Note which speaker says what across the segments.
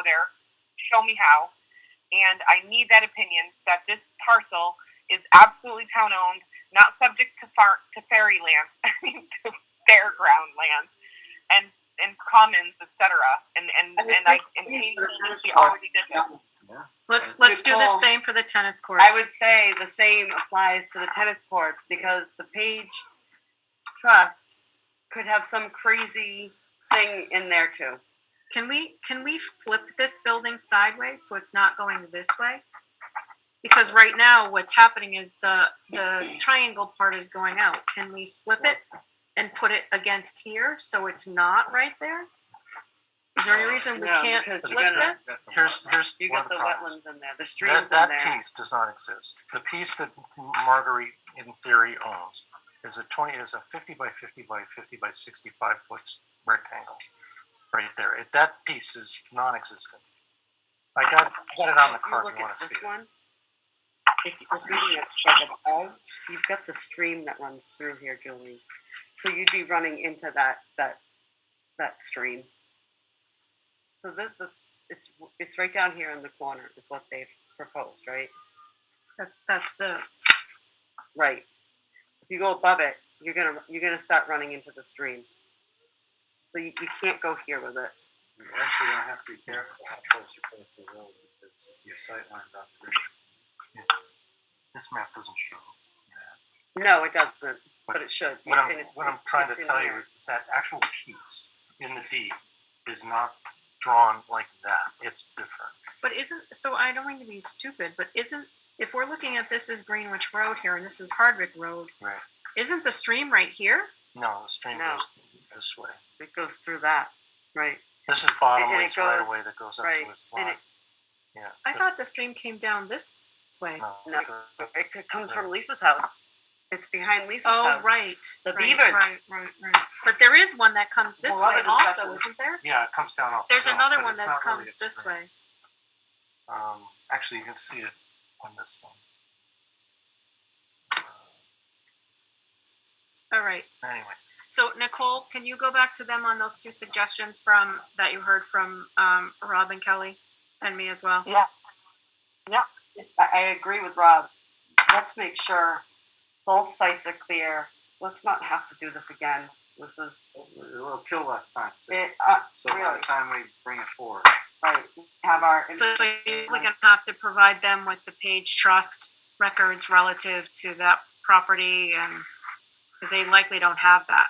Speaker 1: go there. Show me how. And I need that opinion that this parcel is absolutely town owned, not subject to far to fairy land, I mean to fairground land, and and commons, etc. And and
Speaker 2: And
Speaker 1: and
Speaker 2: it's
Speaker 1: I
Speaker 2: like-
Speaker 1: and he, he already did that.
Speaker 3: Let's,
Speaker 2: Good
Speaker 3: let's do the
Speaker 2: call.
Speaker 3: same for the tennis courts.
Speaker 2: I would say the same applies to the tennis courts because the Page Trust could have some crazy thing in there too.
Speaker 3: Can we, can we flip this building sideways so it's not going this way? Because right now, what's happening is the, the triangle part is going out. Can we flip it and put it against here so it's not right there? Is there any reason we
Speaker 2: No,
Speaker 3: can't
Speaker 2: because
Speaker 3: flip
Speaker 2: you're gonna-
Speaker 3: this?
Speaker 4: Here's, here's
Speaker 2: You
Speaker 4: one
Speaker 2: got
Speaker 4: of
Speaker 2: the
Speaker 4: the problems.
Speaker 2: wetlands in there, the
Speaker 4: That,
Speaker 2: streams in
Speaker 4: that
Speaker 2: there.
Speaker 4: piece does not exist. The piece that Marguerite in theory owns is a twenty, is a fifty by fifty by fifty by sixty-five foot rectangle. Right there. It- That piece is non-existent. I got, got it on the
Speaker 2: You
Speaker 4: card.
Speaker 2: look
Speaker 4: You wanna
Speaker 2: at
Speaker 4: see
Speaker 2: this
Speaker 4: it?
Speaker 2: one. If you're reading it like above, you've got the stream that runs through here, Julie. So you'd be running into that, that, that stream. So this, this, it's, it's right down here in the corner is what they've proposed, right?
Speaker 3: That- That's this.
Speaker 2: Right. If you go above it, you're gonna you're gonna start running into the stream. So you, you can't go here with it.
Speaker 5: You actually don't have to be careful how close you put it to the road because your sight lines on the bridge.
Speaker 4: This map doesn't show.
Speaker 2: No, it doesn't, but it should.
Speaker 4: What I'm,
Speaker 2: and it's-
Speaker 4: what I'm
Speaker 2: it's-
Speaker 4: trying
Speaker 2: it's
Speaker 4: to
Speaker 2: in
Speaker 4: tell you
Speaker 2: there.
Speaker 4: is that actual piece in the deed is not drawn like that. It's different.
Speaker 3: But isn't, so I don't mean to be stupid, but isn't, if we're looking at this as Greenwich Road here and this is Hardwick Road,
Speaker 4: Right.
Speaker 3: isn't the stream right here?
Speaker 4: No, the stream
Speaker 2: No.
Speaker 4: goes this way.
Speaker 2: it goes through that, right?
Speaker 4: This is
Speaker 2: And it
Speaker 4: Bottomley's right
Speaker 2: goes-
Speaker 4: away that goes up
Speaker 2: right,
Speaker 4: to his
Speaker 2: and
Speaker 4: lot.
Speaker 2: it-
Speaker 4: Yeah.
Speaker 3: I
Speaker 4: but
Speaker 3: thought the stream came down this way.
Speaker 4: no,
Speaker 2: No.
Speaker 4: it goes-
Speaker 2: It, it comes from Lisa's house. It's behind Lisa's
Speaker 3: Oh,
Speaker 2: house.
Speaker 3: right.
Speaker 2: The
Speaker 3: right,
Speaker 2: beavers.
Speaker 3: Right, right, right. But there is one that comes this
Speaker 2: Well,
Speaker 3: way
Speaker 2: other
Speaker 3: also,
Speaker 2: discussion.
Speaker 3: isn't there?
Speaker 4: Yeah, it comes down off. the
Speaker 3: There's
Speaker 4: hill,
Speaker 3: another
Speaker 4: but
Speaker 3: one
Speaker 4: it's
Speaker 3: that
Speaker 4: not really
Speaker 3: comes
Speaker 4: a
Speaker 3: this
Speaker 4: stream.
Speaker 3: way.
Speaker 4: Um, actually, you can see it on this one.
Speaker 3: All right.
Speaker 4: Anyway,
Speaker 3: So Nicole, can you go back to them on those two suggestions from, that you heard from, um, Rob and Kelly and me as well?
Speaker 2: Yeah. Yeah. I, I agree with Rob. Let's make sure both sites are clear. Let's not have to do this again. This is
Speaker 5: It'll kill less time. too.
Speaker 2: it. Uh,
Speaker 5: So by
Speaker 2: really.
Speaker 5: the time we bring it forward,
Speaker 2: right. We have our
Speaker 3: So so you're really gonna have to provide them with the page trust records relative to that property and, because they likely don't have that.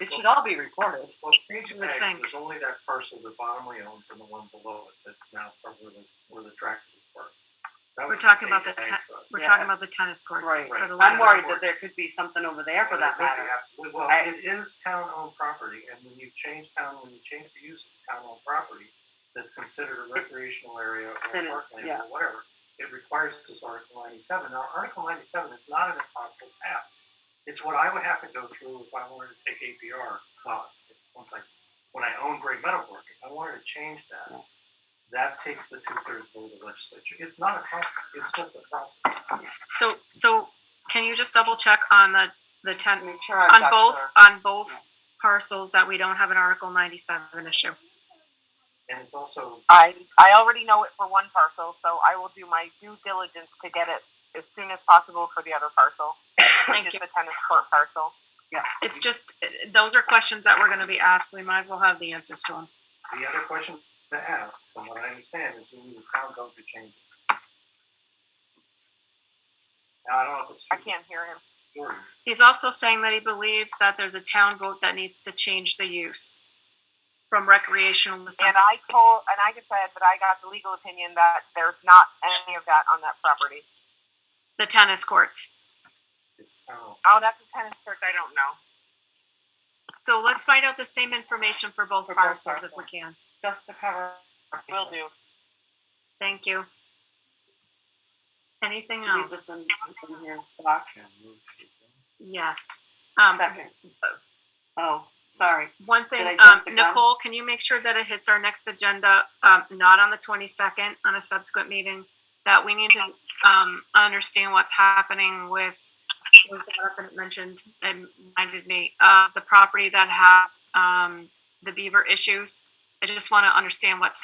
Speaker 2: it should all be recorded.
Speaker 5: well, Page
Speaker 3: Would
Speaker 5: Ag
Speaker 3: think.
Speaker 5: is only that parcel that Bottomley owns and the one below it that's now probably the- where the tractor is parked. That
Speaker 3: We're
Speaker 5: was
Speaker 3: talking
Speaker 5: Page
Speaker 3: about the
Speaker 5: Ag
Speaker 3: ta-
Speaker 5: trust.
Speaker 3: We're
Speaker 2: Yeah.
Speaker 3: talking about the tennis courts.
Speaker 2: Right.
Speaker 3: for the
Speaker 2: I'm
Speaker 3: ladies.
Speaker 2: worried that there could be something over there for
Speaker 5: And
Speaker 2: that
Speaker 5: it would be
Speaker 2: matter.
Speaker 5: absolutely- Well,
Speaker 2: I-
Speaker 5: it is town-owned property, and when you change town, when you change the use of town-owned property, that's considered a recreational area or
Speaker 2: Then it-
Speaker 5: parkland
Speaker 2: yeah.
Speaker 5: or whatever, it requires this Article ninety-seven. Now, Article ninety-seven is not an impossible task. It's what I would have to go through if I wanted to take APR, well, once I, when I own Great Meadow Park, if I wanted to change that, that takes the two-thirds vote of the legislature. It's not a process, it's just a process.
Speaker 3: So, so can you just double check on the, the ten,
Speaker 2: Make sure I've
Speaker 3: on
Speaker 2: got
Speaker 3: both,
Speaker 2: your-
Speaker 3: on both parcels that we don't have an Article ninety-seven issue?
Speaker 5: And it's also
Speaker 1: I I already know it for one parcel, so I will do my due diligence to get it as soon as possible for the other parcel, which
Speaker 3: Thank
Speaker 1: is
Speaker 3: you.
Speaker 1: the tennis court parcel.
Speaker 3: It's just, uh, those are questions that we're gonna be asked. We might as well have the answers to them.
Speaker 5: The other question to ask, from what I understand, is we need a town vote to change. it. Now, I don't know if it's.
Speaker 1: I can't hear him.
Speaker 5: true.
Speaker 3: He's also saying that he believes that there's a town vote that needs to change the use from recreational to
Speaker 1: And
Speaker 3: something.
Speaker 1: I told and I just said that I got the legal opinion that there's not any of that on that property.
Speaker 3: the tennis courts.
Speaker 5: It's town.
Speaker 1: Oh, that's a tennis court. I don't know.
Speaker 3: So let's find out the same information for both
Speaker 2: For both
Speaker 3: parcels if we
Speaker 2: parcels.
Speaker 3: can.
Speaker 2: just to cover.
Speaker 1: Will do.
Speaker 3: Thank you. Anything
Speaker 2: Leave this
Speaker 3: else?
Speaker 2: in, in here, box.
Speaker 3: Yes. Um,
Speaker 2: Second. Oh, sorry.
Speaker 3: One thing,
Speaker 2: I
Speaker 3: um,
Speaker 2: jump the gun?
Speaker 3: Nicole, can you make sure that it hits our next agenda, um, not on the twenty-second, on a subsequent meeting? That we need to, um, understand what's happening with, was brought up and mentioned and reminded me of the property that has, um, the beaver issues. I just wanna understand what's